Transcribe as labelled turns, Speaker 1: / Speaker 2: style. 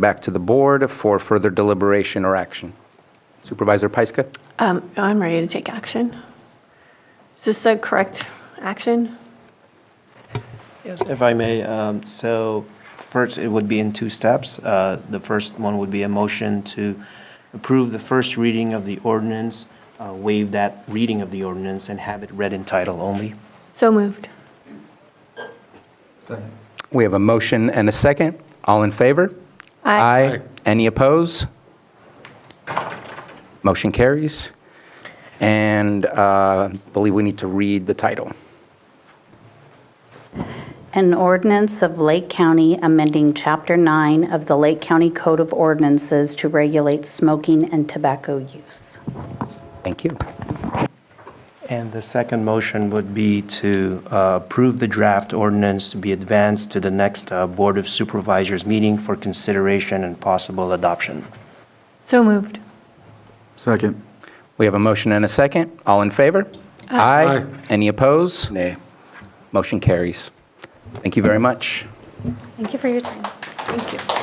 Speaker 1: back to the board for further deliberation or action. Supervisor Pyska?
Speaker 2: Um, I'm ready to take action. Is this the correct action?
Speaker 3: Yes, if I may, um, so first, it would be in two steps. Uh, The first one would be a motion to approve the first reading of the ordinance, uh, waive that reading of the ordinance, and have it read in title only.
Speaker 2: So moved.
Speaker 1: We have a motion and a second. All in favor?
Speaker 2: Aye.
Speaker 1: Any oppose? Motion carries. And uh, I believe we need to read the title.
Speaker 4: An ordinance of Lake County amending Chapter 9 of the Lake County Code of Ordinances to regulate smoking and tobacco use.
Speaker 1: Thank you.
Speaker 3: And the second motion would be to uh, approve the draft ordinance to be advanced to the next uh, Board of Supervisors meeting for consideration and possible adoption.
Speaker 2: So moved.
Speaker 5: Second.
Speaker 1: We have a motion and a second. All in favor? Aye. Any oppose? Nay. Motion carries. Thank you very much.
Speaker 4: Thank you for your time.
Speaker 2: Thank you.